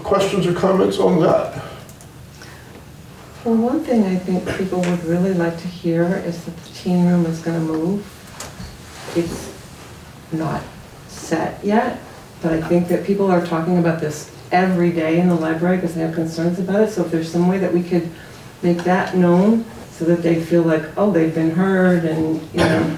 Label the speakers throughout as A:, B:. A: questions or comments on that?
B: Well, one thing I think people would really like to hear is that the teen room is gonna move. It's not set yet, but I think that people are talking about this every day in the library because they have concerns about it. So if there's some way that we could make that known so that they feel like, oh, they've been heard and, you know,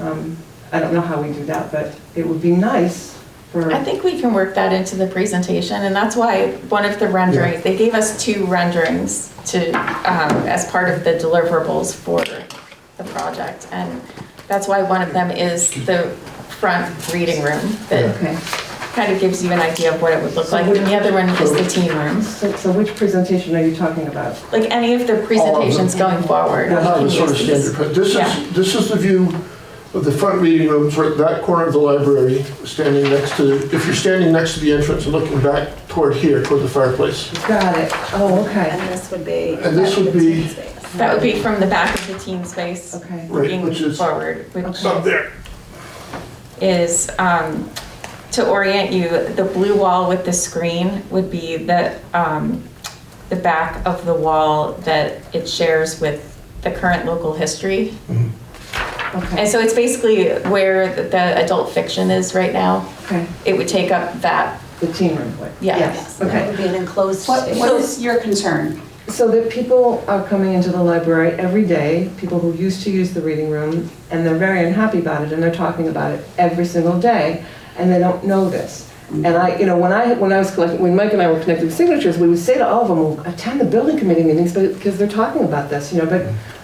B: um, I don't know how we do that, but it would be nice for.
C: I think we can work that into the presentation, and that's why one of the renderings, they gave us two renderings to, um, as part of the deliverables for the project, and that's why one of them is the front reading room that
B: Okay.
C: kind of gives you an idea of what it would look like, and the other one is the teen room.
B: So, so which presentation are you talking about?
C: Like any of the presentations going forward.
A: Yeah,
C: we
A: no,
C: can
A: it's sort of
C: use these.
A: standard, but this
C: Yeah.
A: is, this is the view of the front reading room, sort of that corner of the library, standing next to, if you're standing next to the entrance and looking back toward here, toward the fireplace.
B: Got it. Oh, okay.
D: And this would be.
A: And this would be-
C: That would be from the back of the teen space.
B: Okay.
A: Right,
C: Looking
A: which is-
C: forward, which
A: Up there.
C: is, um, to orient you, the blue wall with the screen would be the, um, the back of the wall that it shares with the current local history. And
B: Okay,
C: so it's basically where the- the adult fiction is right now.
B: okay,
C: It would take up that,
B: the teen room, like,
C: Yeah.
B: yes,
D: That
B: okay.
D: would be an enclosed
B: What-
D: space.
B: what
E: is your concern?
B: So that people are coming into the library every day, people who used to use the reading room, and they're very unhappy about it, and they're talking about it every single day, and they don't know this.
C: Mm.
B: And I, you know, when I, when I was collecting, when Mike and I were connecting signatures, we would say to all of them, well, attend the building committee meetings, but, because they're talking about this, you know, but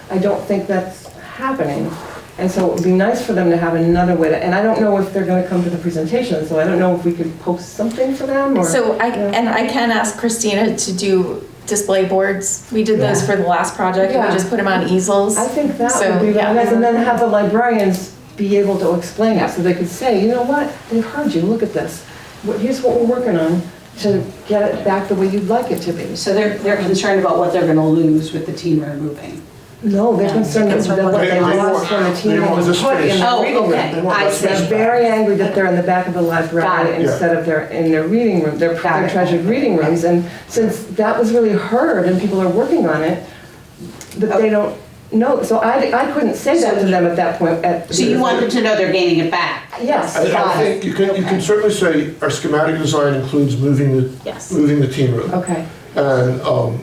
B: I don't think that's happening. And so it would be nice for them to have another way to, and I don't know if they're gonna come to the presentation, so I don't know if we could post something for them, or.
C: so I,
B: Yeah.
C: and I can ask Christina to do display boards. We did those
B: Yeah.
C: for the last project, we
B: Yeah.
C: just put them on easels.
B: I think that
C: So,
B: would be
C: yeah.
B: really nice, and then have the librarians be able to explain it, so they could say, you know what, they've heard you, look at this. What- Here's what we're working on to get it back the way you'd like it to be.
E: So they're, they're concerned about what they're gonna lose with the teen room moving.
B: No, they're
D: Yeah.
B: concerned that
D: Concerned
B: that
D: with
B: what
D: what
B: they
D: they
B: lost
A: want.
B: from the
A: They
B: team
A: want
B: was
A: this
B: put in
A: space.
B: the
E: Oh,
B: reading room.
E: okay.
A: They want
E: I
A: that
E: see.
A: space
B: They're
A: back.
B: very angry that they're in the back of the
E: Got
B: library
E: it.
A: Yeah.
B: instead of their, in their reading room, their
E: Got
B: their
E: it.
B: treasured reading rooms. And since that was really heard and people are working on it, that
E: Oh.
B: they don't know, so I, I couldn't say that to them at that point. at-
E: So you want them to know they're gaining it back?
B: Yes.
A: I I
E: Got it.
A: think you can, you can certainly say our schematic design includes moving the,
C: Yes.
A: moving the team room.
B: Okay,
A: And, um,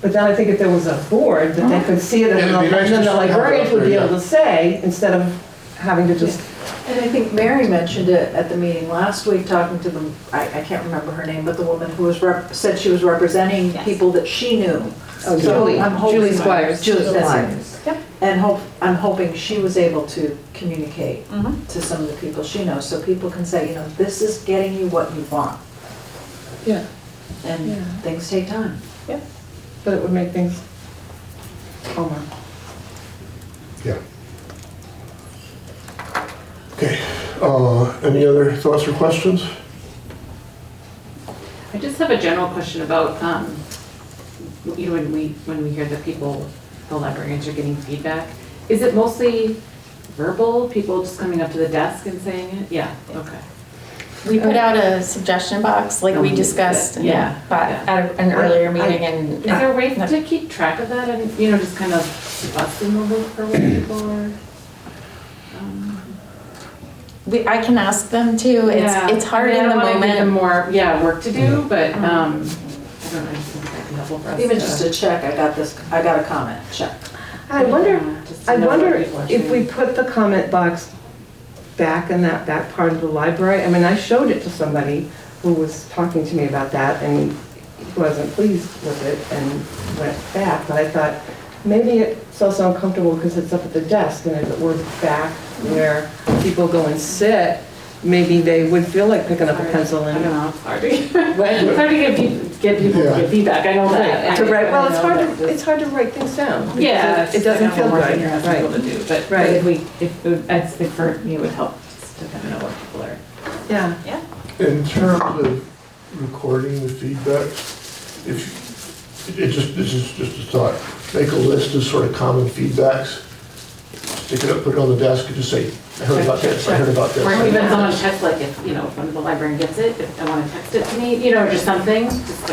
B: but then I think if there was a board, that they could see it, and
A: Yeah, it'd be nice
B: then the
A: to have it up
B: librarians would be
A: there,
B: able to say, instead of having to just,
F: And I think Mary mentioned it at the meeting last week, talking to the, I, I can't remember her name, but the woman who was rep, said she was representing
C: Yes.
F: people that she knew.
B: oh,
F: So
B: Julie,
F: I'm hoping-
B: Julie Squires.
F: Julie, that's
B: Squires.
F: it. And hope, I'm hoping she was able to communicate
C: Mhm.
F: to some of the people she knows, so people can say, you know, this is getting you what you want.
B: Yeah, Yeah.
F: And things take time.
B: but it would make things oh, calmer.
A: yeah. Okay, uh, any other thoughts or questions?
G: I just have a general question about, um, you know, when we, when we hear that people, the librarians are getting feedback, is it mostly verbal, people just coming up to the desk and saying it? Yeah, okay.
C: We put out a suggestion box, like we discussed,
G: Oh, Yeah.
C: yeah, but at an earlier meeting and.
G: Is there a way to keep track of that and, you know, just kind of bust them over for what people are? um,
C: We, I can ask them too,
G: yeah.
C: it's, it's hard
G: I mean,
C: in the
G: I don't wanna give them
C: moment. Mm-hmm.
G: more, yeah, work to do, but, um, I don't know, I think that'd be helpful for us
F: Even
G: to-
F: just a check, I got this, I got a comment, check.
B: I wonder,
G: Yeah, just to
B: I
G: know what
B: wonder
G: people are
B: if we
G: saying.
B: put the comment box back in that back part of the library, I mean, I showed it to somebody who was talking to me about that, and he wasn't pleased with it, and went back, but I thought, maybe it's also uncomfortable because it's up at the desk, and if it were back where people go and sit, maybe they would feel like picking up a pencil
G: I don't
B: and.
G: know, it's hard to, it's hard to get people, get people
A: Yeah.
G: to give feedback, I know that.
B: To write, well, it's
G: I know
B: hard
G: that.
B: to, it's hard to write things down.
G: Yeah.
B: It doesn't feel
G: It's like
B: good,
G: you're asking people
B: right,
G: to do, but but
B: Right.
G: if we, if, it would- I think for me, it would help just to kind of know what people are.
B: yeah.
A: In terms of recording the feedback, if, it just, this is just a thought, make a list of sort of common feedbacks, stick it up, put it on the desk, and just say, I heard about this, I heard about
G: Or
A: this.
G: even someone checks, like, if, you know, if one of the librarian gets it, if I want to text it to me, you know, or just something, just